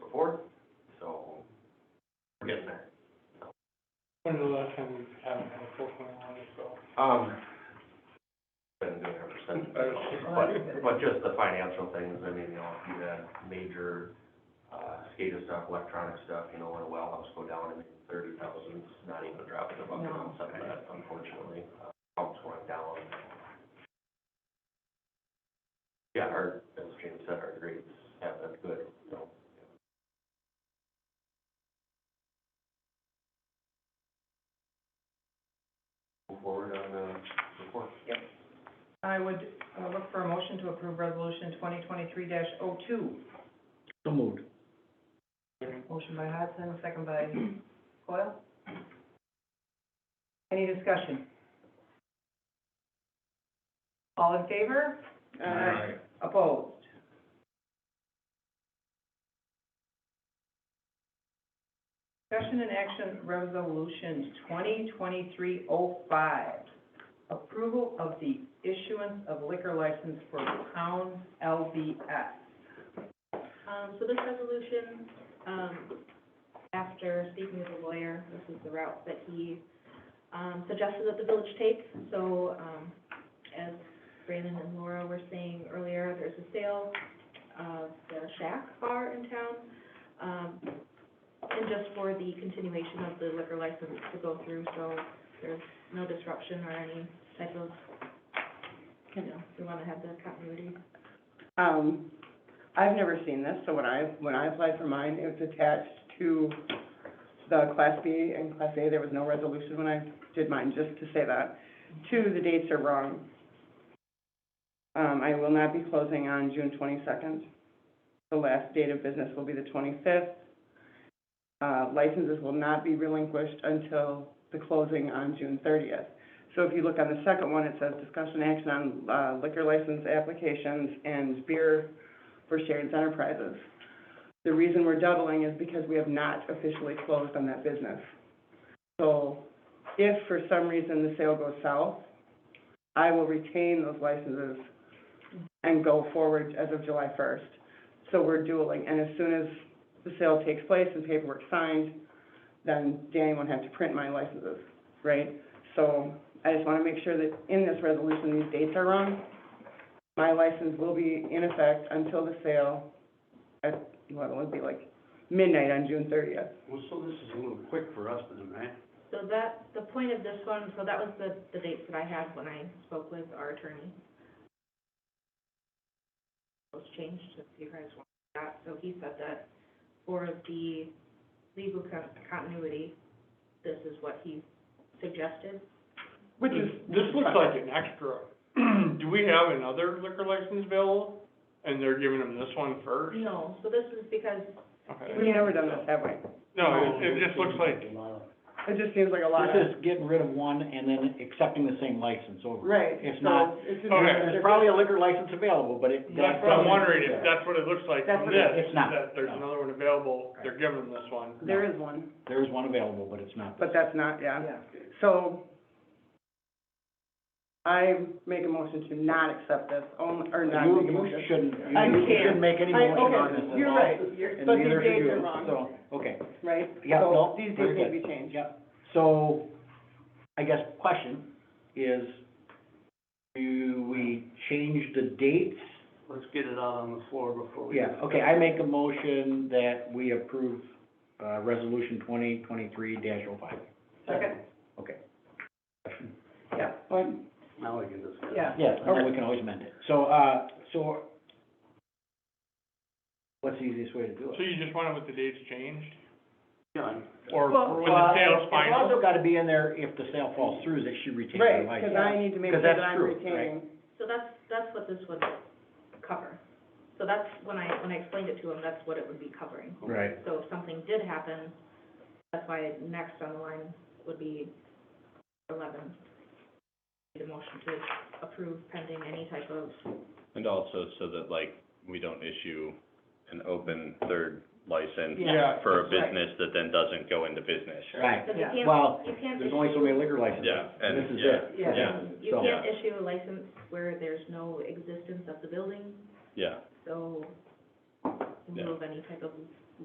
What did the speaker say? When was the last time we had a full plan on this goal? Um, been doing it ever since, but, but just the financial things, I mean, you know, if you had major, uh, SCADA stuff, electronic stuff, you know, when a well house go down and thirty thousand, not even dropping a bucket on some of that, unfortunately, Uh, pumps going down. Yeah, our, as James said, our grades have been good, you know. Move forward on the report. I would uh, look for a motion to approve resolution twenty twenty-three oh 2 So moved. Motion by Hodson, second by Coyle. Any discussion? All in favor? Opposed? Discussion and action resolution twenty twenty-three oh five. Approval of the issuance of liquor license for Pound LBS. Um, so this resolution, um, after speaking with a lawyer, this is the route that he, um, suggested that the village take. So, um, as Brandon and Laura were saying earlier, there's a sale of the Shack Bar in town. Um, and just for the continuation of the liquor license to go through, so there's no disruption or any type of, you know, we wanna have the continuity. Um, I've never seen this, so when I, when I applied for mine, it was attached to the Class B and Class A, there was no resolution when I did mine, just to say that. Two, the dates are wrong. Um, I will not be closing on June twenty-second. The last date of business will be the twenty-fifth. Uh, licenses will not be relinquished until the closing on June thirtieth. So if you look on the second one, it says discussion action on uh, liquor license applications and beer for Sharon's Enterprises. The reason we're doubling is because we have not officially closed on that business. So if for some reason the sale goes south, I will retain those licenses and go forward as of July first. So we're dueling, and as soon as the sale takes place and paperwork's signed, then Danny won't have to print my licenses, right? So I just want to make sure that in this resolution, these dates are wrong. My license will be in effect until the sale at, what it would be like midnight on June thirtieth. Well, so this is a little quick for us then, right? So that, the point of this one, so that was the, the dates that I had when I spoke with our attorney. Those changed, if you guys want that, so he said that for the legal con- continuity, this is what he suggested. Which is. This looks like an extra. Do we have another liquor license available? And they're giving them this one first? No, so this is because, Okay. We've never done this, have we? No, it, it just looks like, It just seems like a lot This of. is getting rid of one and then accepting the same license over. Right. It's so not, it's just- Okay. there's probably a liquor license available, but it. that's what Oh, I'm wondering, if that's what it looks like That's from what it- this. It's not. That there's No. another one available, they're giving them this one. There is one, There is one available, but it's not. but that's not, yeah. So I make a motion to not accept this, only, or not You, make a you motion. shouldn't, I you- you can't. shouldn't make any I- motion on this okay, at you're all, right, and but neither these should dates you. are wrong. So, okay, right? Yeah, So no, These very dates need good. to be changed. yeah. So, I guess question is, do we change the dates Let's get it out on the floor before we. Yeah, okay, I make a motion that we approve, uh, resolution twenty twenty-three dash oh five. Second. Okay. Yeah, One, Now we can discuss. yeah. Yeah, or we can always amend it. So, uh, so what's the easiest way to do So it? you just want it with the dates changed? Yeah, Or Well, when the sale's It's final? also gotta be in there, if the sale falls through, that she retains her right, license. because I need to make sure 'Cause that that's I'm true, right? retaining. so that's, that's what this would cover. So that's, when I, when I explained it to him, that's what it would be covering. Right. So if something did happen, that's why next on the line would be eleven. The motion to approve pending any type of, And also so that like, we don't issue an open third license Yeah. for a Right. business that then doesn't go into business. Right, because you Yeah. can't, Well, you can't there's only so many liquor licenses. Yeah, and- This is yeah, it. yeah. Yeah, issue, you so- can't issue a license where there's no existence of the building, yeah. so Yeah. remove any type of